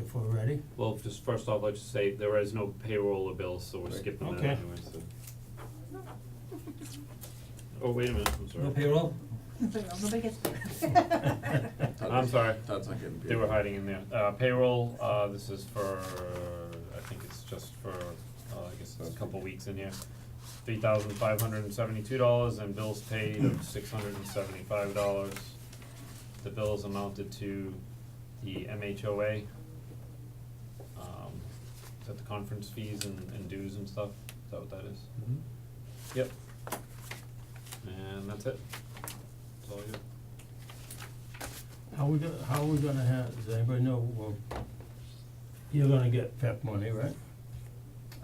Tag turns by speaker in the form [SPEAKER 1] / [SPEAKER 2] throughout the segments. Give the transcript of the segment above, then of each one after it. [SPEAKER 1] if we're ready.
[SPEAKER 2] Well, just first off, let's just say there is no payroll or bills, so we're
[SPEAKER 3] Right.
[SPEAKER 2] skipping that
[SPEAKER 1] Okay.
[SPEAKER 2] anyway, so. Oh, wait a minute, I'm sorry.
[SPEAKER 1] No payroll?
[SPEAKER 4] Nobody gets paid.
[SPEAKER 2] I'm sorry,
[SPEAKER 3] That's not getting paid.
[SPEAKER 2] they were hiding in there. Uh, payroll, uh, this is for, I think it's just for, uh, I guess it's a couple weeks in here. Three thousand five hundred and seventy-two dollars and bills paid of six hundred and seventy-five dollars. The bills amounted to the MHOA. Um, is that the conference fees and, and dues and stuff? Is that what that is?
[SPEAKER 1] Mm-hmm.
[SPEAKER 2] Yep. And that's it. That's all you.
[SPEAKER 1] How we gonna, how we gonna have, does anybody know, well, you're gonna get PEP money, right?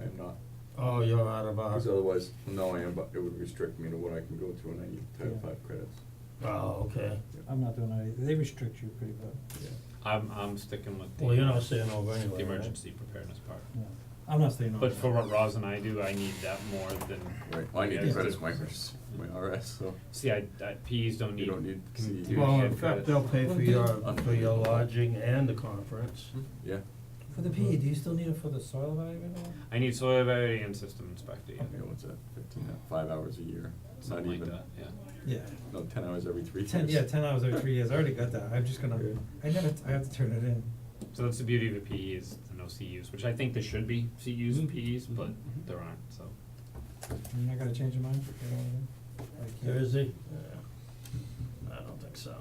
[SPEAKER 3] I am not,
[SPEAKER 1] Oh, you're out
[SPEAKER 5] Uh-huh.
[SPEAKER 1] of our,
[SPEAKER 3] because otherwise, no, I am, but it would restrict me to what I can go to and I need Title
[SPEAKER 6] Yeah.
[SPEAKER 3] Five credits,
[SPEAKER 1] oh, okay.
[SPEAKER 6] I'm not doing any, they restrict you pretty good,
[SPEAKER 3] yeah.
[SPEAKER 2] I'm, I'm sticking with the. uh,
[SPEAKER 1] Well, you're not staying over anyway,
[SPEAKER 2] The
[SPEAKER 1] right?
[SPEAKER 2] emergency preparedness part.
[SPEAKER 6] yeah. I'm not staying on.
[SPEAKER 2] But for what Roz and I do, I need that more than.
[SPEAKER 3] Right, well, I need
[SPEAKER 2] Yeah.
[SPEAKER 3] the credits, my, res- my RS, so,
[SPEAKER 2] See, I, I, Ps don't need.
[SPEAKER 3] You don't need
[SPEAKER 2] can-
[SPEAKER 3] C.
[SPEAKER 2] do
[SPEAKER 1] Well,
[SPEAKER 2] shit
[SPEAKER 1] in
[SPEAKER 2] credits.
[SPEAKER 1] fact, they'll pay for your, for your
[SPEAKER 3] Unbelievable.
[SPEAKER 1] lodging and the conference.
[SPEAKER 3] yeah,
[SPEAKER 5] For the PE, do you still need it for the soil evaluator?
[SPEAKER 2] I need soil variety and system inspector, yeah,
[SPEAKER 3] okay, what's that, fifteen, five hours a year, It's not
[SPEAKER 2] something like
[SPEAKER 3] even,
[SPEAKER 2] that, yeah.
[SPEAKER 5] Yeah.
[SPEAKER 3] no, ten hours every three years.
[SPEAKER 5] Ten, yeah, ten hours every three years, I already got that, I'm just gonna,
[SPEAKER 3] Yeah.
[SPEAKER 5] I never, I have to turn it in.
[SPEAKER 2] So that's the beauty of a PE is the no CUs, which I think there should be CUs
[SPEAKER 1] Mm-hmm.
[SPEAKER 2] and PEs, but there aren't, so.
[SPEAKER 5] You're not gonna change your mind, you know what I mean? I can't.
[SPEAKER 1] Thursday? Yeah. I don't think so.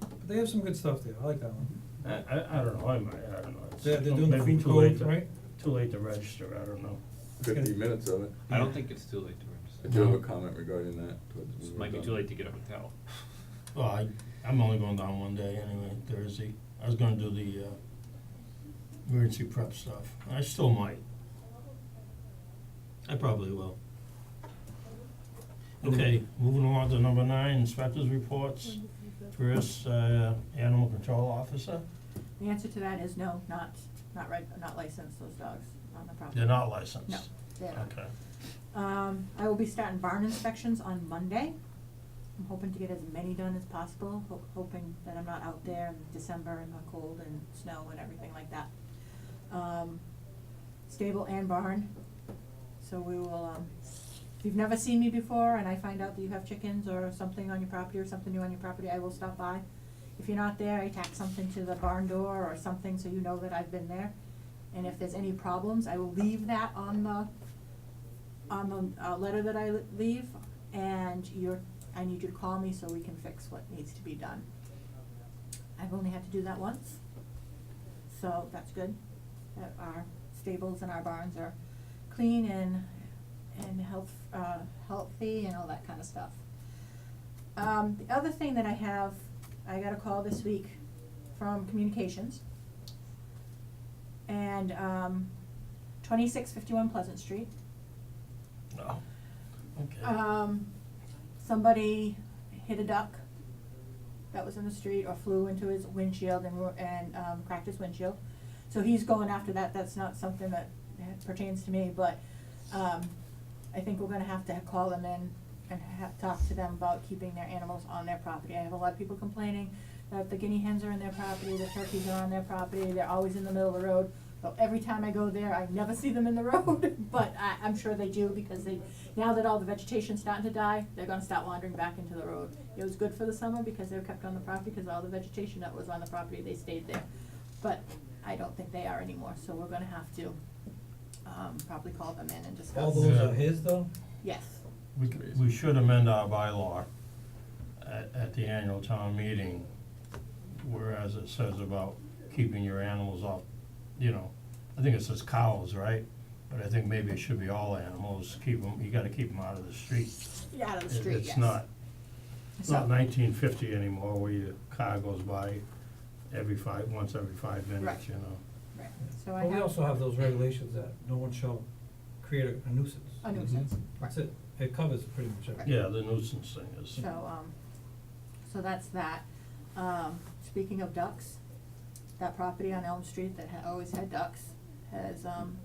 [SPEAKER 5] But they have some good stuff there, I like that one.
[SPEAKER 1] I, I, I don't know, I might, I don't know. It's oh,
[SPEAKER 5] They're, they're doing the
[SPEAKER 1] maybe
[SPEAKER 5] food
[SPEAKER 1] too late
[SPEAKER 5] court,
[SPEAKER 1] to-
[SPEAKER 5] right?
[SPEAKER 1] Too late to register, I don't know.
[SPEAKER 3] Fifty minutes of it,
[SPEAKER 2] I don't think it's too late to
[SPEAKER 3] I
[SPEAKER 2] register.
[SPEAKER 3] do have a comment regarding that, towards when
[SPEAKER 2] It
[SPEAKER 3] we're
[SPEAKER 2] might be
[SPEAKER 3] done.
[SPEAKER 2] too late to get a hotel.
[SPEAKER 1] Well, I, I'm only going down one day anyway, Thursday. I was gonna do the, uh, emergency prep stuff. I still might. I probably will. Okay, moving along to number nine, inspectors reports. First, uh, animal control officer.
[SPEAKER 4] The answer to that is no, not, not reg, not licensed, those dogs on the property.
[SPEAKER 1] They're not licensed.
[SPEAKER 4] No, they're not.
[SPEAKER 1] Okay.
[SPEAKER 4] Um, I will be starting barn inspections on Monday. I'm hoping to get as many done as possible, ho- hoping that I'm not out there in December and the cold and snow and everything like that. Um, stable and barn, so we will, um, if you've never seen me before and I find out that you have chickens or something on your property or something new on your property, I will stop by. If you're not there, I tack something to the barn door or something so you know that I've been there. And if there's any problems, I will leave that on the on the uh letter that I l- leave and you're, I need you to call me so we can fix what needs to be done. I've only had to do that once, so that's good, that our stables and our barns are clean and and health uh healthy and all that kind of stuff. Um the other thing that I have, I got a call this week from communications. And um twenty-six fifty-one Pleasant Street,
[SPEAKER 1] No. Okay.
[SPEAKER 4] um, somebody hit a duck that was in the street or flew into his windshield and, ru- and, um, cracked his windshield. So he's going after that, that's not something that eh, pertains to me, but, um, I think we're gonna have to call them in and have, talk to them about keeping their animals on their property. I have a lot of people complaining that the guinea hens are on their property, the turkeys are on their property, they're always in the middle of the road. So every time I go there, I never see them in the road, but I, I'm sure they do because they, now that all the vegetation's starting to die, they're gonna start wandering back into the road. It was good for the summer because they were kept on the property, because all the vegetation that was on the property, they stayed there. But I don't think they are anymore, so we're gonna have to, um, probably call them in and discuss.
[SPEAKER 5] All those
[SPEAKER 1] Yeah.
[SPEAKER 5] are his though?
[SPEAKER 4] Yes.
[SPEAKER 1] We, c- we should amend our bylaw at, at the annual town meeting, whereas it says about keeping your animals off, you know, I think it says cows, right? But I think maybe it should be all animals, keep 'em- you gotta keep them out of the street.
[SPEAKER 4] Yeah, out of the
[SPEAKER 1] It-
[SPEAKER 4] street, yes.
[SPEAKER 1] It's not, it's not
[SPEAKER 4] So-
[SPEAKER 1] nineteen fifty anymore where your car goes by every five, once every five minutes,
[SPEAKER 4] Right.
[SPEAKER 1] you know?
[SPEAKER 4] Right, so I
[SPEAKER 5] But we
[SPEAKER 4] have
[SPEAKER 5] also have those regulations that no one shall create a- a nuisance.
[SPEAKER 4] a nuisance,
[SPEAKER 5] Mhm.
[SPEAKER 4] right.
[SPEAKER 5] That's it, it covers pretty much everything.
[SPEAKER 1] Yeah, the nuisance thing is,
[SPEAKER 4] So, um, so that's that. Um, speaking of ducks, that property on Elm Street that ha- always had ducks has, um,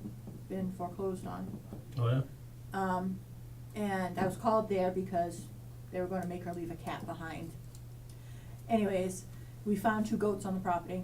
[SPEAKER 4] been foreclosed on.
[SPEAKER 1] oh yeah?
[SPEAKER 4] Um, and I was called there because they were gonna make her leave a cat behind. Anyways, we found two goats on the property.